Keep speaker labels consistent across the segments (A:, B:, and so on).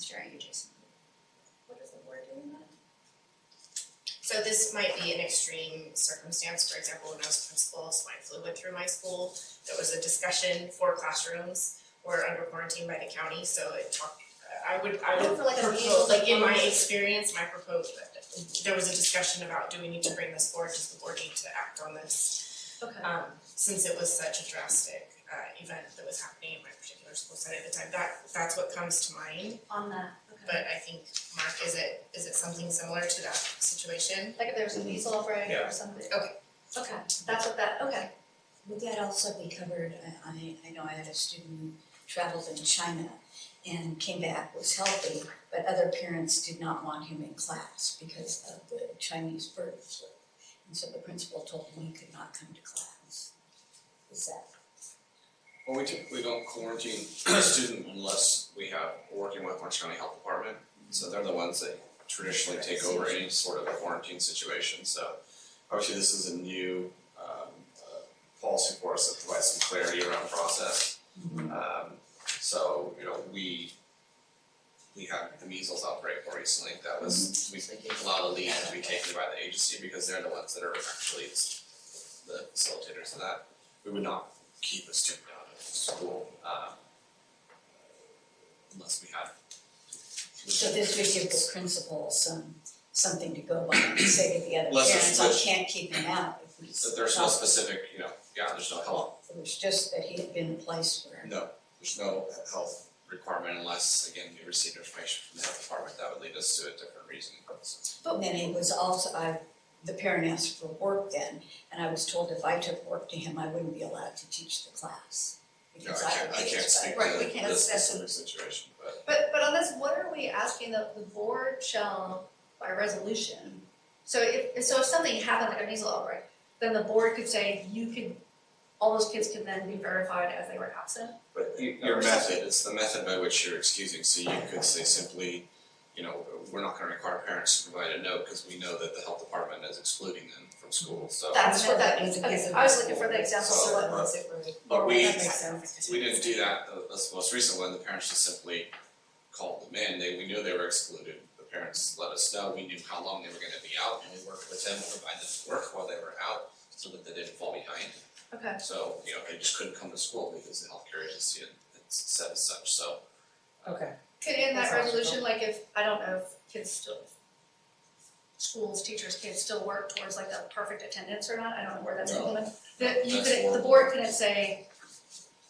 A: sharing adjacent.
B: What is the word doing that?
A: So this might be an extreme circumstance, for example, when I was principal, swine flu went through my school, there was a discussion, four classrooms were under quarantine by the county, so it talked, I would, I would
B: For like a
A: propose, like in my
B: meeting.
A: experience, my proposed, there was a discussion about, do we need to bring this forward, does the board need to act on this?
B: Okay.
A: Um, since it was such a drastic uh event that was happening in my particular school site at the time, that that's what comes to mind.
B: On that, okay.
A: But I think, Mark, is it, is it something similar to that situation?
B: Like if there was a measles outbreak
C: Yeah.
B: or something.
A: Okay.
B: Okay, that's what that, okay.
D: Would that also be covered, I- I, I know I had a student who traveled in China and came back, was healthy, but other parents did not want him in class because of the Chinese bird flu. And so the principal told him he could not come to class. Is that,
C: Well, we typically don't quarantine a student unless we have, we're working with Orange County Health Department. So they're the ones that traditionally take over any sort of quarantine situation, so obviously this is a new um uh policy for us that provides some clarity around process.
D: Mm-hmm.
C: Um so, you know, we we had the measles outbreak more recently, that was, we
D: Mm-hmm.
C: a lot of lead to be taken by the agency because they're the ones that are actually the facilitators of that. We would not keep a student out of school, um, unless we had.
D: so this would give the principal some, something to go by and say to the other
C: Less of
D: parents, I
C: which-
D: can't keep him out if he's.
C: But there's no
D: healthy."
C: specific, you know, yeah, there's no health,
D: It was just that he had been in a place where.
C: no, there's no health requirement unless, again, we received information from the health department, that would lead us to a different reason. So,
D: And then it was also, I, the parent asked for work then, and I was told if I took work to him, I wouldn't be allowed to teach the class.
C: No, I
D: because
C: can't,
D: would
C: I
D: be
C: can't speak
B: Right, we
C: to
B: can't
C: the
B: discuss
C: specific situation, but
B: But but on this, what are we asking that the board shall by resolution? So if so if something happened like a measles outbreak, then the board could say you could, all those kids could then be verified as they were absent.
C: but y- your method, it's the method by which you're excusing, so you could say simply, you know, we're not gonna require parents to provide a note, cause we know that the health department is excluding them from school, so.
B: That's what that
E: That
B: means,
E: means
B: okay,
E: because
B: I was
E: of
B: looking for the example
C: So,
B: of
C: uh,
B: what,
A: pues,
C: But we,
B: That makes
C: we didn't do that, the, the most recent one, the parents just simply called them in, they, we knew they were excluded. The parents let us know, we knew how long they were gonna be out, and we worked with them, to provide them work while they were out, so that they didn't fall behind.
B: okay,
C: So, you know, they just couldn't come to school because the healthcare agency had had said as such, so.
E: Okay,
B: could in that
E: That's
B: resolution, like if, I don't know, if kids still schools, teachers, kids still work towards like that perfect attendance or not, I don't know where that's
C: No.
B: implemented. That you
C: That's
B: could, the
C: horrible.
B: board couldn't say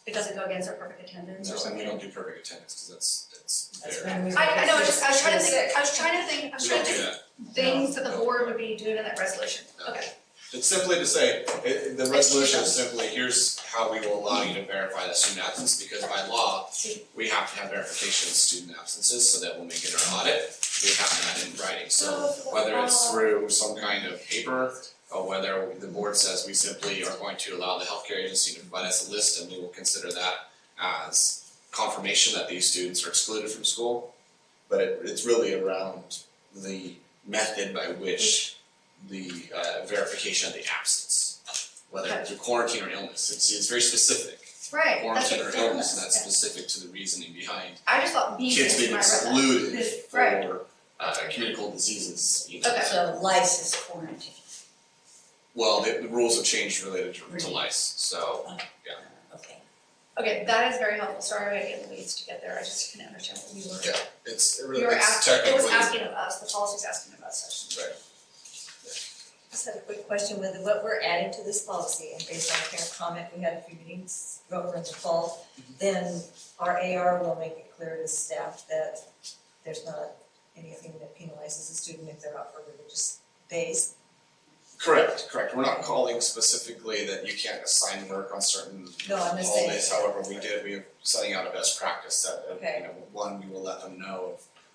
B: it doesn't go against our perfect attendance or
C: No, and
B: something.
C: we don't do perfect attendance, cause that's, that's
E: that's
C: there.
E: when we.
B: I I know, I
E: were
B: was just, I was trying to
E: sick.
B: think, I was trying to think, I was
C: We
B: trying
C: don't
B: to
C: do
B: think
C: that,
B: things that the
C: No.
B: board would be doing in that resolution,
C: No.
B: okay,
C: it's simply to say, it, the resolution is simply, here's how we will allow you to verify the student absence, because by law,
B: see,
C: we have to have verification of student absences so that when we get our audit, we have that in writing. Oh, So whether it's through some kind of paper or whether the board says we simply are going to allow the healthcare agency to provide us a list and we will consider that as confirmation that these students are excluded from school. But it, it's really around the method by which the uh, verification of the absence, whether it's through quarantine or illness, it's, it's very specific
B: right, that's
C: quarantine
B: what
C: or
B: it's doing,
C: illness, and that's specific to the reasoning behind
B: I just thought these
C: kids
B: things
C: being
B: when I read that.
C: excluded
B: This- right.
C: for uh communicable diseases, you know.
B: Okay.
D: So lice is quarantine.
C: Well, the the rules have changed related to to lice, so
D: Okay.
B: Okay, that is very helpful, sorry I didn't get leads to get there, I just couldn't understand what we
C: Yeah,
B: were,
C: it's it
B: we
C: really
B: were
C: it's
B: asking, it
C: technically.
B: was asking of us, the policy's asking of us, I should.
C: Right.
E: I Just had a quick question with what we're adding to this policy and based on parent comment, we had a few meetings over in the fall. Then our AR will make it clear to staff that there's not anything that penalizes a student if they're out for religious days.
C: Correct, correct. We're not calling specifically that you can't assign work on certain
E: No, I'm just saying.
C: holidays, however, we did, we are setting out a best practice that, uh,
E: Okay.
C: you know, one, we will let them know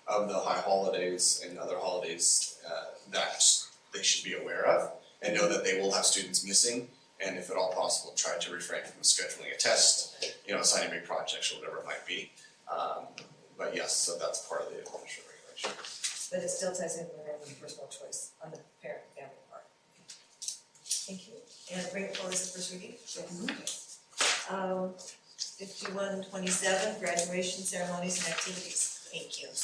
C: of of the high holidays and other holidays uh that they should be aware of and know that they will have students missing and if at all possible, try to refrain from scheduling a test, you know, assigning big projects or whatever it might be. Um but yes, so that's part of the official regulation.
E: But it still ties in with their own personal choice on the parent and family part. Thank you, and bring it forward as a first reading. Um, fifty-one twenty-seven, graduation ceremonies and activities.
A: Thank you.